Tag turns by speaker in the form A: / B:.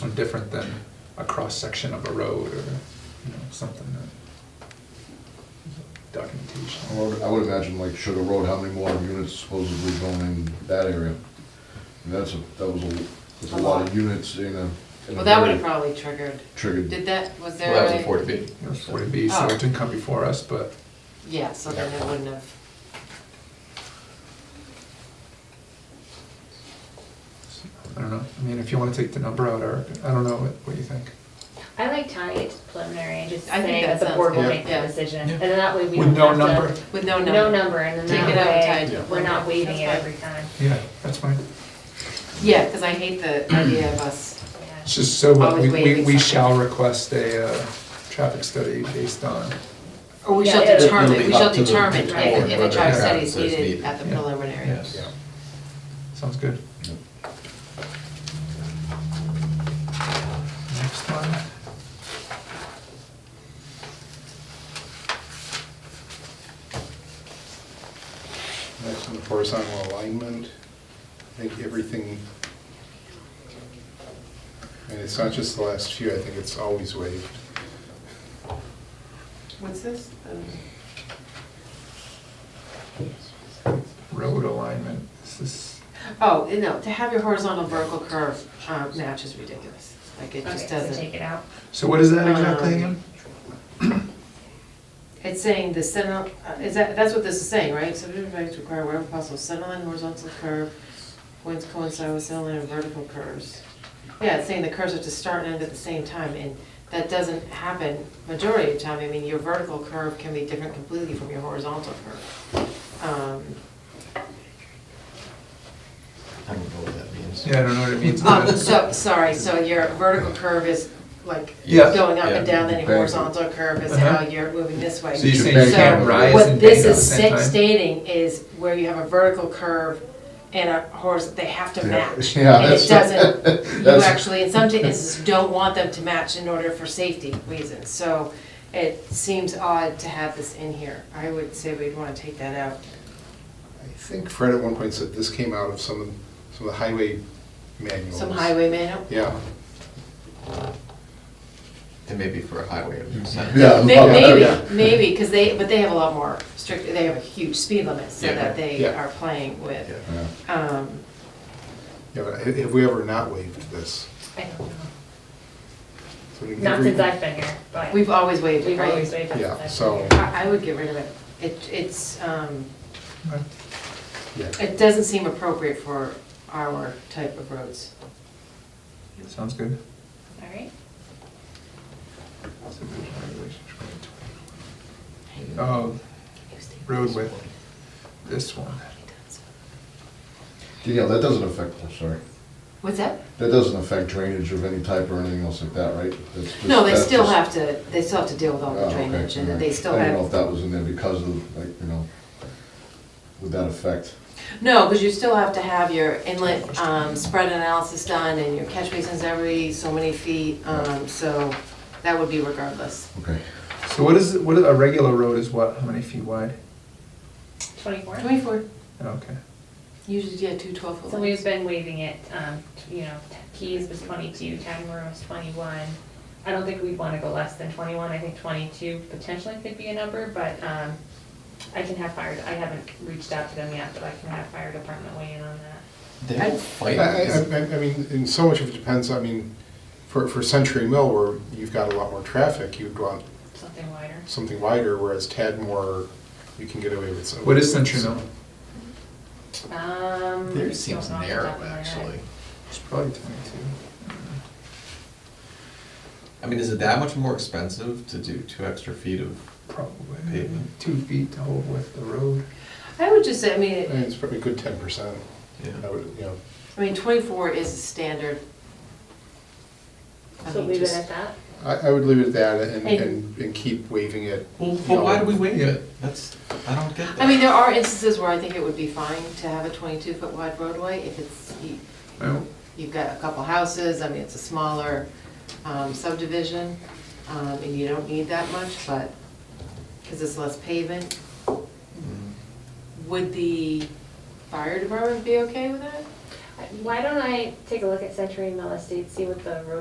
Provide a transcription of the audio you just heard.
A: one different than a cross-section of a road or, you know, something that,
B: I
A: documentation.
B: would- I would imagine like Sugar Road, how many more units supposedly going in that area? And that's, a that was a, that's a
C: A
B: lot
C: lot.
B: of units in a, in a
C: Well, that would have
B: very
C: probably triggered,
B: triggered.
C: did that, was there
D: Well,
C: a?
D: that was a forty B.
A: It was 40B,
C: Oh.
A: so it didn't come before us, but
C: Yeah, so then it wouldn't have,
A: I don't know. I mean, if you want to take the number out, Eric, I don't know what, what you think.
E: I like tying it to preliminary and just
C: I think
E: saying
C: that
E: that the
C: sounds
E: board will
C: good.
E: make the
C: Yeah.
E: decision.
A: Yeah.
E: And then that way we
A: With
E: don't
A: no
E: have to.
A: number?
C: with no number.
E: No number, and
C: Take
E: then
C: it out
E: that
C: tied to
E: way, we're not waiving it
C: That's fine.
E: every time.
A: Yeah, that's fine.
C: Yeah, because I hate the idea of us,
E: Yeah.
A: It's just so, what, we,
C: Always
A: we,
C: waiving
A: we
C: something.
A: shall request a, uh, traffic study based on,
C: or we shall
E: Yeah, it'll-
C: determine,
D: it'll
C: we
D: be
C: shall
D: up to the
C: determine
D: board
C: if, if a
D: whether
A: it
C: charge study is
D: happens as
C: needed
D: needed.
C: at the
A: Yeah.
C: preliminary.
D: Yes.
A: yeah. Sounds good. Next one.
F: Next on the horizontal alignment, I think everything, and it's not just the last few, I think it's always waived.
C: What's this?
A: Road alignment, this is,
C: Oh, no, to have your horizontal vertical curve uh, match is ridiculous, like it
E: Okay,
C: just
E: so take
C: doesn't.
E: it out.
A: so what is that exactly
C: Um,
A: again?
C: It's saying the center, uh, is that, that's what this is saying, right? Subdivision values require wherever possible, center line horizontal curve, points coincide with center line and vertical curves. Yeah, it's saying the curves have to start and end at the same time, and that doesn't happen majority of the time. I mean, your vertical curve can be different completely from your horizontal curve. Um,
D: I don't know what that means.
A: Yeah, I don't know what it means.
C: Um, so, sorry, so your vertical curve is like
A: Yeah.
C: going up and
D: Yeah.
C: down, then your
B: Bang.
C: horizontal curve is
A: Uh-huh.
C: how you're moving this way.
A: So you're
B: saying you
C: So
B: can't rise
A: and
C: What
A: bend
C: this
A: at the
C: is
A: same
C: sta-
A: time?
C: stating is where you have a vertical curve and a horizontal, they have to match.
B: Yeah,
C: And
B: that's-
C: it doesn't, you
B: that's-
C: actually, in some cases, don't want them to match in order for safety reasons. So it seems odd to have this in here. I would say we'd want to take that out.
F: I think Fred at one point said this came out of some, of some of the highway manuals.
C: Some highway manual?
F: Yeah,
D: And maybe for a highway, it makes sense.
B: Yeah.
C: May-
B: Oh, yeah.
C: Maybe, maybe, because they, but they have a lot more strict, they have a huge speed limit, so
D: Yeah,
C: that they
F: yeah.
C: are playing
D: Yeah.
C: with.
B: Yeah.
C: Um,
F: yeah, but ha- have we ever not waived this?
E: I don't know.
F: So we
E: Not
F: never-
E: since I've been here, but
C: We've always waived it,
E: we've always
C: right?
E: waived it.
F: Yeah, so,
C: I I would get rid of it. It, it's, um,
F: yeah,
C: it doesn't seem appropriate for our type of roads.
A: Sounds good.
E: All right.
A: Oh, road width, this one.
B: Yeah, that doesn't affect, I'm sorry.
C: What's that?
B: That doesn't affect drainage of any type or anything else like that, right? That's just-
C: No, they
B: that's
C: still
B: just-
C: have to, they still have to deal with all
B: Oh,
C: the
B: okay,
C: drainage, and
B: alright.
C: they still
B: I
C: have.
B: don't know if that was in there because of, like, you know, would that affect?
C: No, because you still have to have your inlet um, spread analysis done and your catch basins every so many feet, um, so that would be regardless.
B: Okay.
A: So what is, what, is- a regular road is what, how many feet wide?
E: Twenty-four.
C: Twenty-four,
A: Okay.
C: usually, yeah, two twelve foot
E: So we've
C: lines.
E: been waiving it, um, you know, Keys was twenty-two, Town Room was twenty-one. I don't think we'd wanna go less than twenty-one, I think twenty-two potentially could be a number, but, um, I can have fire, I haven't reached out to them yet, but I can have fire department weigh in on that.
D: They're
F: I,
D: fighting.
F: I,
D: Is-
F: I- I mean, and so much of it depends, I mean, for, for Century Mill, where you've got a lot more traffic, you'd want
E: Something wider.
F: something wider, whereas Tadmore, you can get away with some.
A: What is Century Mill?
E: Um.
D: There seems
E: don't know off the
D: narrow,
E: top of my head.
D: actually.
A: It's probably twenty-two.
D: I mean, is it that much more expensive to do two extra feet of
A: Probably,
D: Pavement.
A: two feet to hold with the road.
C: I would just say, I mean,
F: I
C: it-
F: mean, it's probably a good ten percent,
D: Yeah.
F: I would, you know,
C: I mean, twenty-four is a standard. I
E: So
C: mean,
E: leave it
C: just-
E: at that?
F: I, I would leave it at that and,
C: Hey.
F: and, and keep waiving it.
D: Well,
F: you
D: but why
F: know.
D: do we waive
A: Yeah.
D: it? That's, I don't get that.
C: I mean, there are instances where I think it would be fine to have a twenty-two foot wide roadway if it's, you-
A: Well,
C: you've got a couple houses, I mean, it's a smaller um, subdivision, um, and you don't need that much, but, because it's less pavement.
D: Mm.
C: Would the fire department be okay with that?
E: Why don't I take a look at Century Mill Estate, see what the road